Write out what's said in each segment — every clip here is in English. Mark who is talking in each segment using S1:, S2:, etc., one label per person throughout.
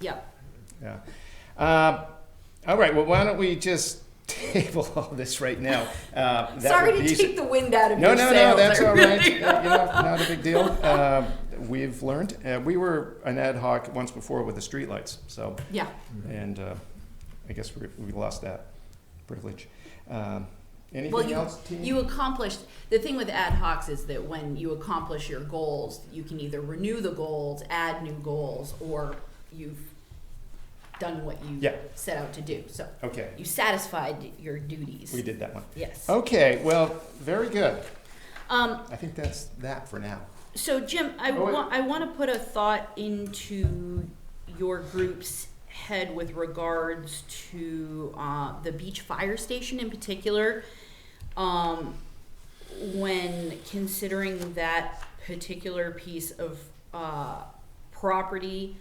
S1: Yeah.
S2: Yeah. Um, all right, well, why don't we just table all this right now? Uh, that
S1: Sorry
S2: would
S1: to
S2: be-
S1: take the wind out of
S2: No,
S1: your
S2: no, no,
S1: sails.
S2: that's
S1: I
S2: all
S1: really
S2: right. You
S1: am.
S2: know, not a big deal. Um, we've learned. Uh, we were an ad hoc once before with the streetlights, so,
S1: Yeah.
S2: and uh, I guess we, we lost that privilege. Um, anything
S1: Well, you,
S2: else, team?
S1: you accomplished, the thing with ad hocs is that when you accomplish your goals, you can either renew the goals, add new goals, or you've done what you
S2: Yeah.
S1: set out to do. So
S2: okay,
S1: you satisfied your duties.
S2: we did that one.
S1: Yes.
S2: Okay, well, very good.
S1: Um,
S2: I think that's that for now.
S1: so Jim, I
S2: Oh, wait.
S1: want, I want to put a thought into your group's head with regards to, uh, the beach fire station in particular. um, when considering that particular piece of uh, property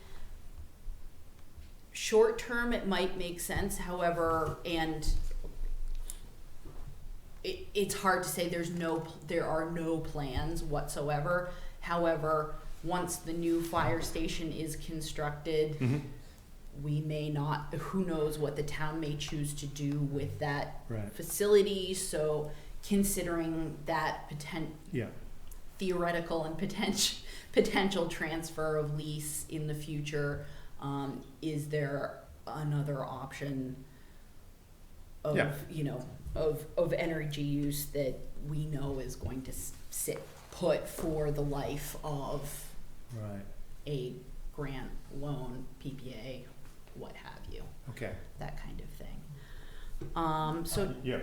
S1: short term it might make sense however and it, it's hard to say there's no there are no plans whatsoever however once the new fire station is constructed
S2: Mhm.
S1: we may not who knows what the town may choose to do with that
S2: Right.
S1: facility so considering that potent
S2: Yeah.
S1: theoretical and potential potential transfer of lease in the future um, is there another option of
S2: Yeah.
S1: you know of of energy use that we know is going to s- sit put for the life of
S2: Right.
S1: a grant loan PPA what have you
S2: Okay.
S1: that kind of thing um, so
S2: Yeah.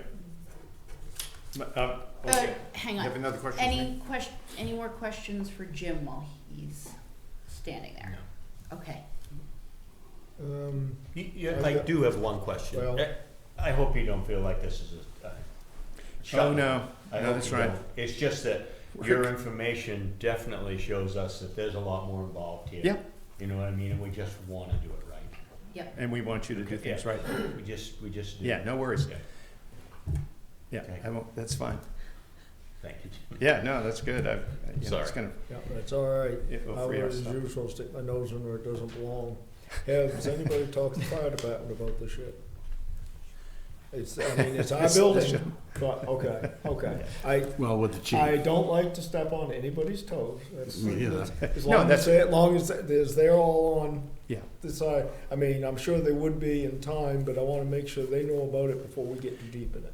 S2: Um,
S1: uh,
S2: okay.
S1: hang
S2: You
S1: on
S2: have another question? for me?
S1: Any question, any more questions for Jim while he's standing there? Okay.
S3: Um,
S4: You- you- I do have one question.
S3: Well-
S4: Eh, I hope you don't feel like this is a. uh,
S2: Oh,
S4: shut-
S2: no.
S4: I
S2: No,
S4: hope
S2: that's
S4: you
S2: right.
S4: don't. It's just that your information definitely shows us that there's a lot more involved here.
S2: Yeah.
S4: You know what I mean? And we just want to do it right.
S1: Yep.
S2: And we want you to do
S4: Okay,
S2: things
S4: yeah.
S2: right.
S4: We just, we just do.
S2: Yeah,
S4: it.
S2: no worries.
S4: Okay.
S2: Yeah,
S4: Okay.
S2: I won't, that's fine.
S4: Thank you. Jim.
S2: Yeah, no, that's good. I, you know, it's
S4: Sorry.
S2: gonna,
S3: yeah, that's all right.
S2: it
S3: I
S2: will
S3: would,
S2: free our
S3: as
S2: stuff.
S3: usual, stick my nose in where it doesn't belong. Has anybody talked to the fire department about this yet? It's, I mean, it's our
S2: This- this
S3: building,
S2: should-
S3: but, okay, okay. I,
S5: Well, with the chief.
S3: I don't like to step on anybody's toes. That's-
S5: Me either.
S3: As
S2: No,
S3: long
S2: that's-
S3: as, they- as long as, they- as they're all on
S2: Yeah,
S3: the side, I mean, I'm sure they would be in time, but I wanna make sure they know about it before we get too deep in it.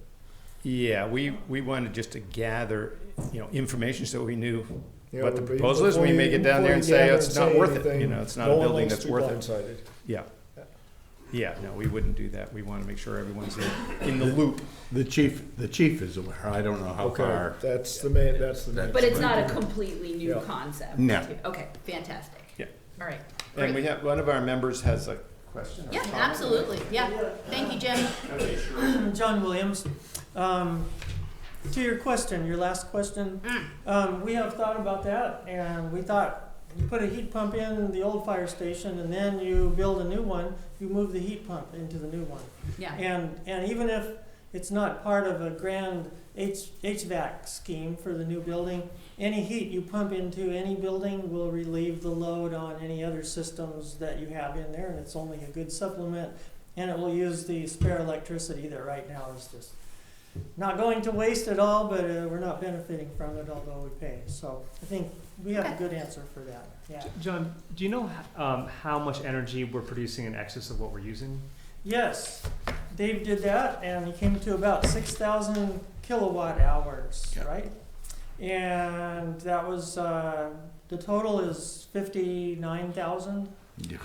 S2: yeah, we, we wanted just to gather, you know, information so we knew
S3: Yeah,
S2: what the
S3: but be-
S2: proposal is. We
S3: before
S2: may
S3: you-
S2: get down there
S3: before
S2: and
S3: you
S2: say, "Oh,
S3: gather
S2: it's
S3: and
S2: not
S3: say
S2: worth it, you
S3: anything,
S2: know, it's not
S3: no
S2: a
S3: one
S2: building
S3: likes
S2: that's
S3: to be
S2: worth it.
S3: blindsided.
S2: Yeah.
S3: Yeah.
S2: Yeah, no, we wouldn't do that. We wanna make sure everyone's in, in the loop.
S5: The chief, the chief is aware. I don't know how
S3: Okay,
S5: far.
S3: that's the man, that's the man.
S1: But it's not a completely new
S3: Yeah.
S1: concept?
S5: No.
S1: Okay, fantastic.
S2: Yeah.
S1: All right.
S2: And we
S1: Great.
S2: have, one of our members has a question. or
S1: Yeah,
S2: comment.
S1: absolutely, yeah. Thank you, Jim.
S2: Okay, sure.
S6: John Williams. Um, to your question, your last question, um, we have thought about that, and we thought you put a heat pump in the old fire station, and then you build a new one. You move the heat pump into the new one,
S1: Yeah,
S6: and and even if it's not part of a grand H, HVAC scheme for the new building, any heat you pump into any building will relieve the load on any other systems that you have in there, and it's only a good supplement. And it will use the spare electricity that right now is just not going to waste at all, but uh, we're not benefiting from it, although we pay. So I think we have a good answer for that. Yeah.
S7: John, do you know um, how much energy we're producing in excess of what we're using?
S6: Yes, Dave did that, and he came to about six thousand kilowatt hours,
S5: Yeah.
S6: right? And that was, uh, the total is fifty-nine thousand,
S5: Yeah.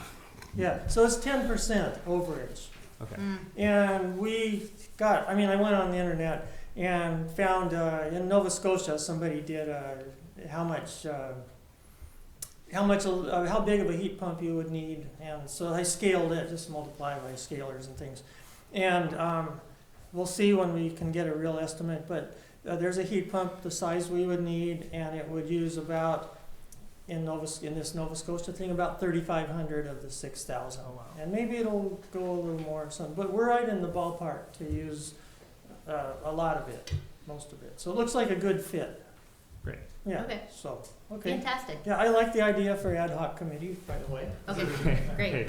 S6: yeah, so it's ten percent overage.
S7: Okay.
S1: Mm,
S6: And we got, I mean, I went on the internet and found uh, in Nova Scotia, somebody did uh, how much, uh, how much, uh, how big of a heat pump you would need. And so I scaled it, just multiply by scalars and things. And um, we'll see when we can get a real estimate, but uh, there's a heat pump the size we would need, and it would use about, in Nova, in this Nova Scotia thing, about thirty-five hundred of the six thousand. And maybe it'll go a little more some, but we're right in the ballpark to use uh, a lot of it, most of it. So it looks like a good fit.
S7: Great.
S6: Yeah,
S1: Okay.
S6: so, okay.
S1: fantastic.
S6: Yeah, I like the idea for ad hoc committee, by the way.
S1: Okay, great.